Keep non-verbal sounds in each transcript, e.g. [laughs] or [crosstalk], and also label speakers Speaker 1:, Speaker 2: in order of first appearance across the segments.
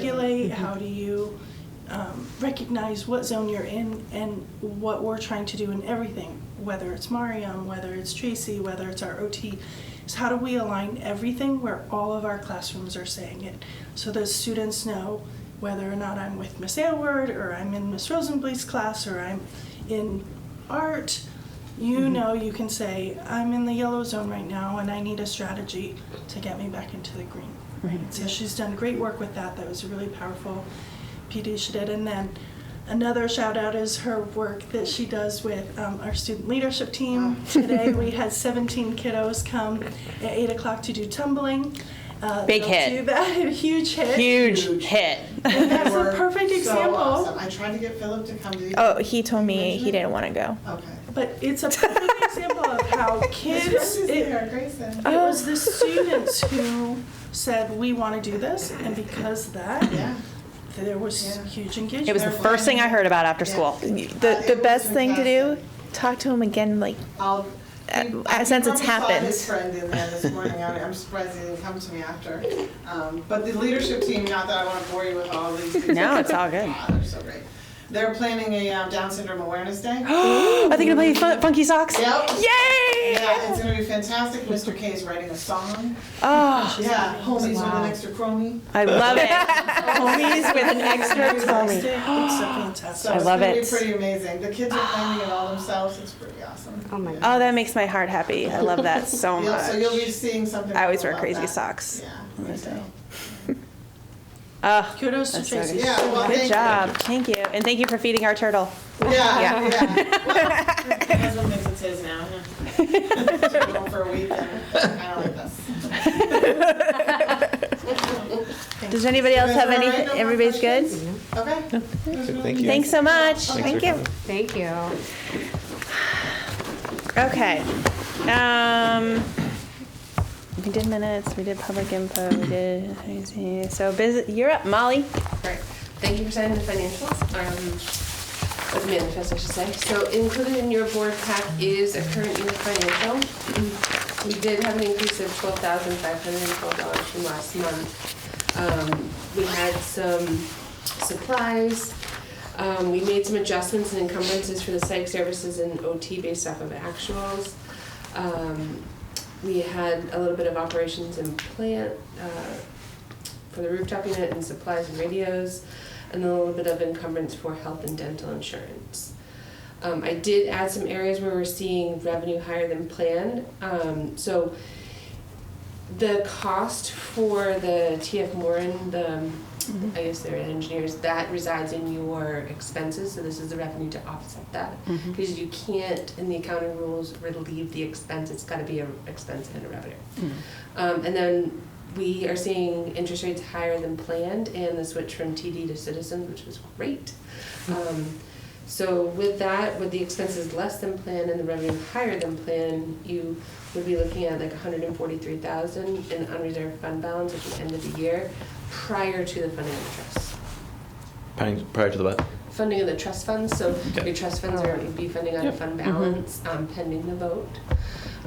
Speaker 1: regulate? How do you um, recognize what zone you're in and what we're trying to do in everything? Whether it's Mariam, whether it's Tracy, whether it's our OT, is how do we align everything where all of our classrooms are saying it? So those students know whether or not I'm with Miss Aylward or I'm in Miss Rosenblatt's class or I'm in art you know you can say i'm in the yellow zone right now and i need a strategy to get me back into the green
Speaker 2: Right.
Speaker 1: so she's done great work with that that was really powerful pd she did and then another shout out is her work that she does with um, our student leadership team today
Speaker 3: [laughs]
Speaker 1: we had 17 kiddos come at 8 o'clock to do tumbling uh,
Speaker 3: Big
Speaker 1: they'll
Speaker 3: hit.
Speaker 1: do that [laughs] huge hit
Speaker 3: Huge
Speaker 4: Huge.
Speaker 3: hit.
Speaker 1: and that's
Speaker 4: They
Speaker 1: a
Speaker 4: were
Speaker 1: perfect
Speaker 4: so
Speaker 1: example
Speaker 4: awesome. I tried to get Philip to come to the.
Speaker 5: Oh, he told me he didn't want to go.
Speaker 4: Okay.
Speaker 1: but it's a perfect example of
Speaker 3: [laughs]
Speaker 1: how kids
Speaker 4: Grace is
Speaker 1: it,
Speaker 4: there, Grayson.
Speaker 1: It was
Speaker 3: Oh.
Speaker 1: the students
Speaker 3: [laughs]
Speaker 1: who said, we want to do this, and because of that,
Speaker 4: Yeah.
Speaker 1: there was
Speaker 4: Yeah.
Speaker 1: huge engagement.
Speaker 3: It was the first thing I heard about after
Speaker 4: Yeah.
Speaker 3: school.
Speaker 5: The the best thing to do, talk to him again. Like
Speaker 4: I'll.
Speaker 5: Uh,
Speaker 4: he-
Speaker 5: uh,
Speaker 4: he
Speaker 5: since it's
Speaker 4: probably saw
Speaker 5: happened.
Speaker 4: his friend in there this morning. I- I'm surprised he didn't come to me after. Um, But the leadership team, not that I want to bore you with all these.
Speaker 3: No, it's all good.
Speaker 4: Ah, They're so great. They're planning a um, Down syndrome awareness
Speaker 3: [gasps]
Speaker 4: day.
Speaker 3: Are they gonna play fun- Funky Socks?
Speaker 4: Yep.
Speaker 3: Yay!
Speaker 4: Yeah, it's gonna be fantastic. Mr. K is writing a song.
Speaker 3: Oh,
Speaker 4: Yeah, homies with an extra chromie.
Speaker 3: I love it. Homies with an extra
Speaker 1: It's
Speaker 3: tummy.
Speaker 1: so fantastic.
Speaker 4: So
Speaker 3: I
Speaker 4: it's
Speaker 3: love
Speaker 4: gonna be
Speaker 3: it.
Speaker 4: pretty amazing. The kids are planning it all
Speaker 3: [gasps]
Speaker 4: themselves. It's pretty awesome.
Speaker 2: Oh my
Speaker 5: oh, that makes my heart happy. I love that so
Speaker 4: You'll-
Speaker 5: much.
Speaker 4: So you'll be seeing something.
Speaker 5: I always wear
Speaker 4: about
Speaker 5: crazy
Speaker 4: that.
Speaker 5: socks.
Speaker 4: Yeah.
Speaker 3: Uh,
Speaker 5: Oh,
Speaker 1: [gasps] Kudos to Tracy.
Speaker 4: Yeah, well, thank
Speaker 5: good
Speaker 4: you.
Speaker 5: job. Um, Thank you, and thank you for feeding our turtle.
Speaker 4: Yeah,
Speaker 5: Yeah.
Speaker 4: yeah.
Speaker 5: [laughs]
Speaker 4: My husband thinks it's his now. huh? [laughs] She's going for a week and I don't like this.
Speaker 5: Does anybody else
Speaker 4: You guys
Speaker 5: have
Speaker 4: all
Speaker 5: any?
Speaker 4: right? No more
Speaker 5: Everybody's good.
Speaker 4: questions? Okay.
Speaker 6: Thank you.
Speaker 5: Thanks so much. Thank
Speaker 6: for
Speaker 5: you.
Speaker 6: coming.
Speaker 2: Thank you.
Speaker 5: Okay. Um, we did minutes, we did public info, we did, so busy, you're up, Molly.
Speaker 7: Right. Thank you for signing the financials, um, or the manifest, I should say. So included in your board pack is a current year financial. We did have an increase of twelve thousand five hundred and twelve dollars from last month. Um, we had some supplies. Um, we made some adjustments and encumbrances for the psych services and OT based off of actuals. Um, we had a little bit of operations and plant, uh, for the rooftop unit and supplies and radios, and then a little bit of encumbrance for health and dental insurance. Um, I did add some areas where we're seeing revenue higher than planned. Um, so the cost for the TF Moran, the, I guess they're engineers, that resides in your expenses, so this is the revenue to offset that. Because you can't, in the accounting rules, relieve the expense, it's gotta be an expense and a revenue. Um, and then we are seeing interest rates higher than planned and the switch from TD to Citizens, which was great. Um, so with that, with the expenses less than planned and the revenue higher than planned, you would be looking at like hundred and forty-three thousand in unreserved fund balance at the end of the year prior to the funding of the trust.
Speaker 6: Prior prior to the what?
Speaker 7: Funding of the trust funds, so
Speaker 6: Okay.
Speaker 7: your trust funds are, would be funding on fund balance um, pending the vote.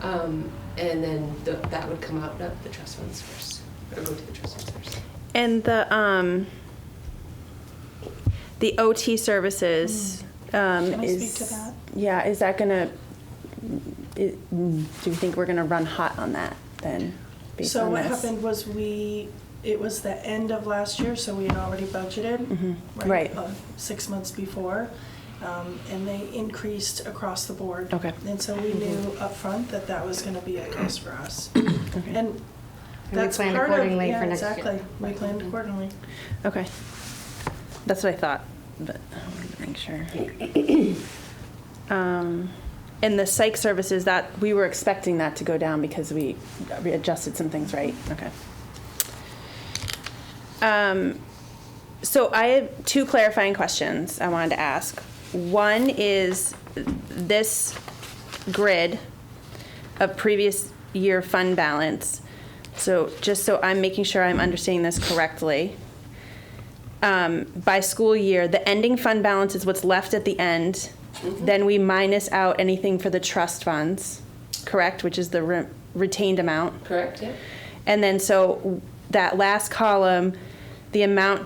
Speaker 7: Um, And then the- that would come out of the trust funds first, or go to the trust funds first.
Speaker 5: And the, um, the OT services, um,
Speaker 1: Hmm. Can I speak
Speaker 5: is.
Speaker 1: to that?
Speaker 5: Yeah, is that gonna, i- mm, do you think we're gonna run hot on that then? based
Speaker 1: So
Speaker 5: on
Speaker 1: what
Speaker 5: this?
Speaker 1: happened was we, it was the end of last year, so we had already budgeted.
Speaker 5: Right.
Speaker 1: uh, Six months before, um, and they increased across the board.
Speaker 5: Okay.
Speaker 1: And so we knew upfront that that was gonna be a cost for us. And
Speaker 2: we
Speaker 1: that's
Speaker 2: planned
Speaker 1: part of-
Speaker 2: accordingly
Speaker 1: yeah,
Speaker 2: for next year.
Speaker 1: Exactly, we planned accordingly.
Speaker 5: Okay. That's what I thought, but I wanted to make sure. Um, And the psych services, that, we were expecting that to go down because we adjusted some things, right? Okay. Um, So I have two clarifying questions I wanted to ask. One is this grid of previous year fund balance. So just so I'm making sure I'm understanding this correctly um, by school year, the ending fund balance is what's left at the end. Then we minus out anything for the trust funds, correct, which is the re- retained amount.
Speaker 7: Correct, yeah?
Speaker 5: And then so that last column, the amount